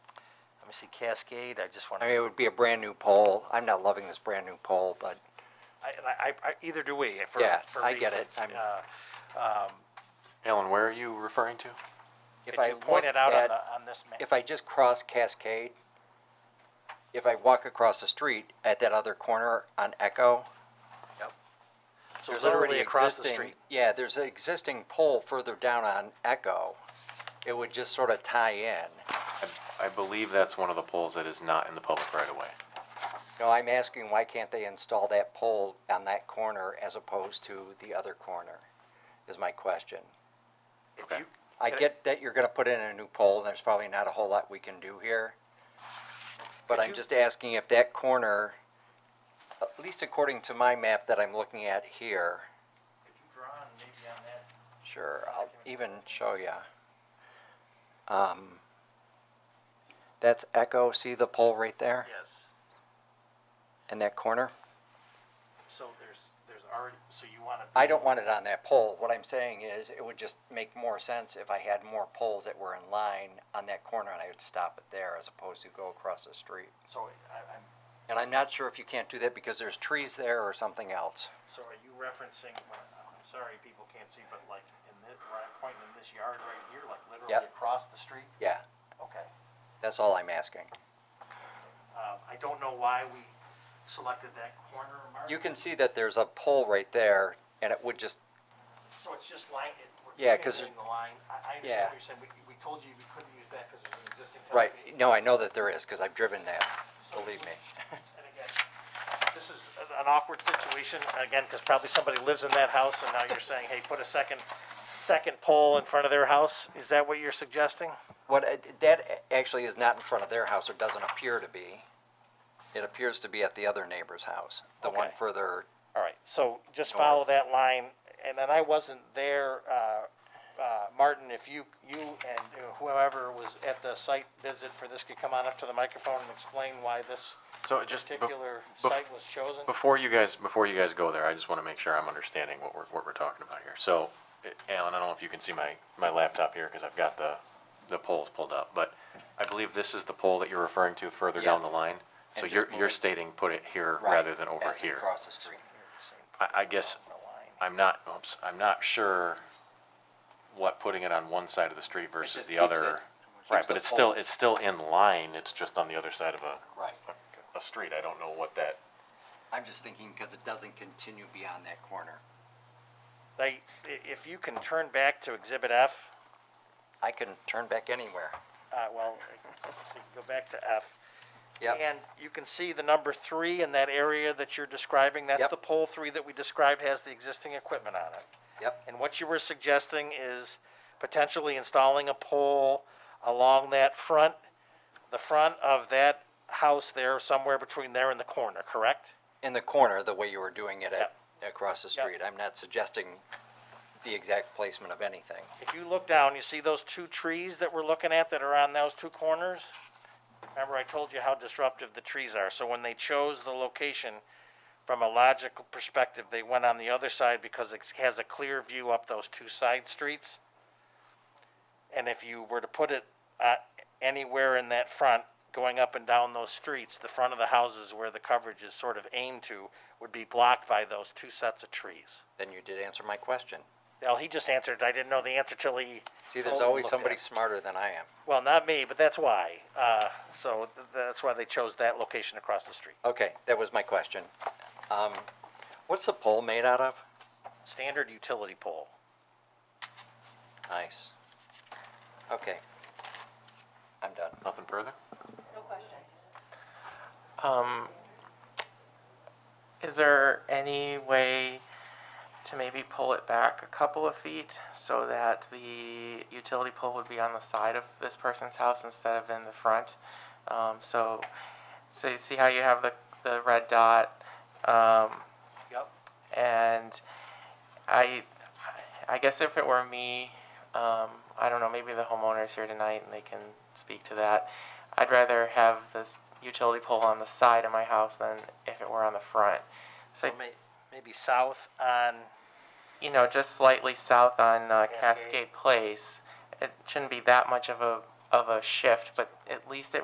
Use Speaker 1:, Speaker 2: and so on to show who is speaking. Speaker 1: me see, Cascade, I just want
Speaker 2: I
Speaker 1: to,
Speaker 2: mean, it would be a brand-new pole. I'm not loving this brand-new pole, but
Speaker 1: I, I, I, either do we, for,
Speaker 2: Yeah,
Speaker 1: for reasons.
Speaker 2: I get it. I'm-
Speaker 1: Uh,
Speaker 3: Alan, where are you referring to?
Speaker 2: if
Speaker 1: Could
Speaker 2: I
Speaker 1: you point
Speaker 2: look
Speaker 1: it out on
Speaker 2: at-
Speaker 1: the, on this map?
Speaker 2: If I just cross Cascade, if I walk across the street at that other corner on Echo,
Speaker 1: Yep. So
Speaker 2: there's already
Speaker 1: literally across the
Speaker 2: existing-
Speaker 1: street.
Speaker 2: Yeah, there's an existing pole further down on Echo. It would just sort of tie in.
Speaker 3: I believe that's one of the poles that is not in the public right of way.
Speaker 2: No, I'm asking why can't they install that pole on that corner as opposed to the other corner, is my question.
Speaker 1: If
Speaker 3: Okay.
Speaker 1: you-
Speaker 2: I
Speaker 1: could
Speaker 2: get that you're gonna put in a new pole, and there's probably not a whole lot we can do here. But
Speaker 1: Could
Speaker 2: I'm
Speaker 1: you-
Speaker 2: just asking if that corner, at least according to my map that I'm looking at here,
Speaker 1: Could you draw on maybe on that?
Speaker 2: sure, I'll even show ya. Um, that's Echo, see the pole right there
Speaker 1: Yes.
Speaker 2: in that corner?
Speaker 1: So there's, there's already, so you want to.
Speaker 2: I don't want it on that pole. What I'm saying is, it would just make more sense if I had more poles that were in line on that corner, and I would stop it there as opposed to go across the street.
Speaker 1: So I, I'm,
Speaker 2: And I'm not sure if you can't do that because there's trees there or something else.
Speaker 1: so are you referencing, when- I'm sorry, people can't see, but like in this, where I'm pointing in this yard right here, like literally
Speaker 2: Yep.
Speaker 1: across the street?
Speaker 2: Yeah,
Speaker 1: Okay.
Speaker 2: that's all I'm asking.
Speaker 1: Um, I don't know why we selected that corner mark.
Speaker 2: You can see that there's a pole right there, and it would just,
Speaker 1: So it's just line, it, we're
Speaker 2: Yeah, 'cause
Speaker 1: changing the line. I, I
Speaker 2: Yeah.
Speaker 1: understand what you're saying. We, we told you we couldn't use that because there's an existing.
Speaker 2: right,
Speaker 1: telephone.
Speaker 2: no, I know that there is, because I've driven that, believe me.
Speaker 1: And again, this is an- an awkward situation, again, because probably somebody lives in that house and now you're saying, hey, put a second, second pole in front of their house? Is that what you're suggesting?
Speaker 2: What, I- that actually is not in front of their house, or doesn't appear to be. It appears to be at the other neighbor's house, the one
Speaker 1: Okay.
Speaker 2: further
Speaker 1: All right, so just follow that line, and then I wasn't there, uh, uh, Martin, if you, you and whoever was at the site visit for this could come on up to the microphone and explain why this
Speaker 3: So just be-
Speaker 1: particular
Speaker 3: bef-
Speaker 1: site was chosen?
Speaker 3: Before you guys, before you guys go there, I just want to make sure I'm understanding what we're, what we're talking about here. So, eh, Alan, I don't know if you can see my, my laptop here because I've got the, the poles pulled up, but I believe this is the pole that you're referring to further down
Speaker 2: Yeah.
Speaker 3: the line. So
Speaker 2: And
Speaker 3: you're,
Speaker 2: just
Speaker 3: you're
Speaker 2: move it-
Speaker 3: stating put it here rather than over
Speaker 2: as
Speaker 3: here.
Speaker 2: Across the street.
Speaker 3: I, I guess I'm not, oops, I'm not sure what putting it on one side of the street versus
Speaker 2: just
Speaker 3: the
Speaker 2: keeps
Speaker 3: other.
Speaker 2: it-
Speaker 3: Right,
Speaker 2: keeps
Speaker 3: but
Speaker 2: the
Speaker 3: it's still,
Speaker 2: poles.
Speaker 3: it's still in line, it's just on the other side of a,
Speaker 2: Right.
Speaker 3: a street. I don't know what that,
Speaker 2: I'm just thinking because it doesn't continue beyond that corner.
Speaker 1: They, i- if you can turn back to Exhibit F,
Speaker 2: I can turn back anywhere.
Speaker 1: uh, well, so you can go back to F.
Speaker 2: Yep,
Speaker 1: And you can see the number three in that area that you're describing, that's
Speaker 2: Yep.
Speaker 1: the pole three that we described has the existing equipment on it.
Speaker 2: yep,
Speaker 1: And what you were suggesting is potentially installing a pole along that front, the front of that house there, somewhere between there and the corner, correct?
Speaker 2: in the corner, the way you were doing it at,
Speaker 1: Yep.
Speaker 2: across the
Speaker 1: Yep.
Speaker 2: street. I'm not suggesting the exact placement of anything.
Speaker 1: If you look down, you see those two trees that we're looking at that are on those two corners? Remember, I told you how disruptive the trees are, so when they chose the location, from a logical perspective, they went on the other side because it has a clear view up those two side streets. And if you were to put it, uh, anywhere in that front, going up and down those streets, the front of the houses where the coverage is sort of aimed to would be blocked by those two sets of trees.
Speaker 2: Then you did answer my question.
Speaker 1: Well, he just answered, I didn't know the answer till he.
Speaker 2: See, there's
Speaker 1: told-
Speaker 2: always
Speaker 1: looked at
Speaker 2: somebody
Speaker 1: it.
Speaker 2: smarter than I am.
Speaker 1: Well, not me, but that's why. Uh, so th- that's why they chose that location across the street.
Speaker 2: Okay, that was my question. Um, what's the pole made out of?
Speaker 1: Standard utility pole.
Speaker 2: Nice. Okay. I'm done.
Speaker 3: nothing further?
Speaker 4: No questions.
Speaker 5: Um, Is there any way to maybe pull it back a couple of feet so that the utility pole would be on the side of this person's house instead of in the front? Um, so, so you see how you have the, the red dot, um,
Speaker 1: Yep.
Speaker 5: and I, I guess if it were me, um, I don't know, maybe the homeowner's here tonight and they can speak to that. I'd rather have this utility pole on the side of my house than if it were on the front. So,
Speaker 1: So may, maybe south on,
Speaker 5: you know, just slightly south on uh,
Speaker 1: Cascade.
Speaker 5: Cascade Place, it shouldn't be that much of a, of a shift, but at least it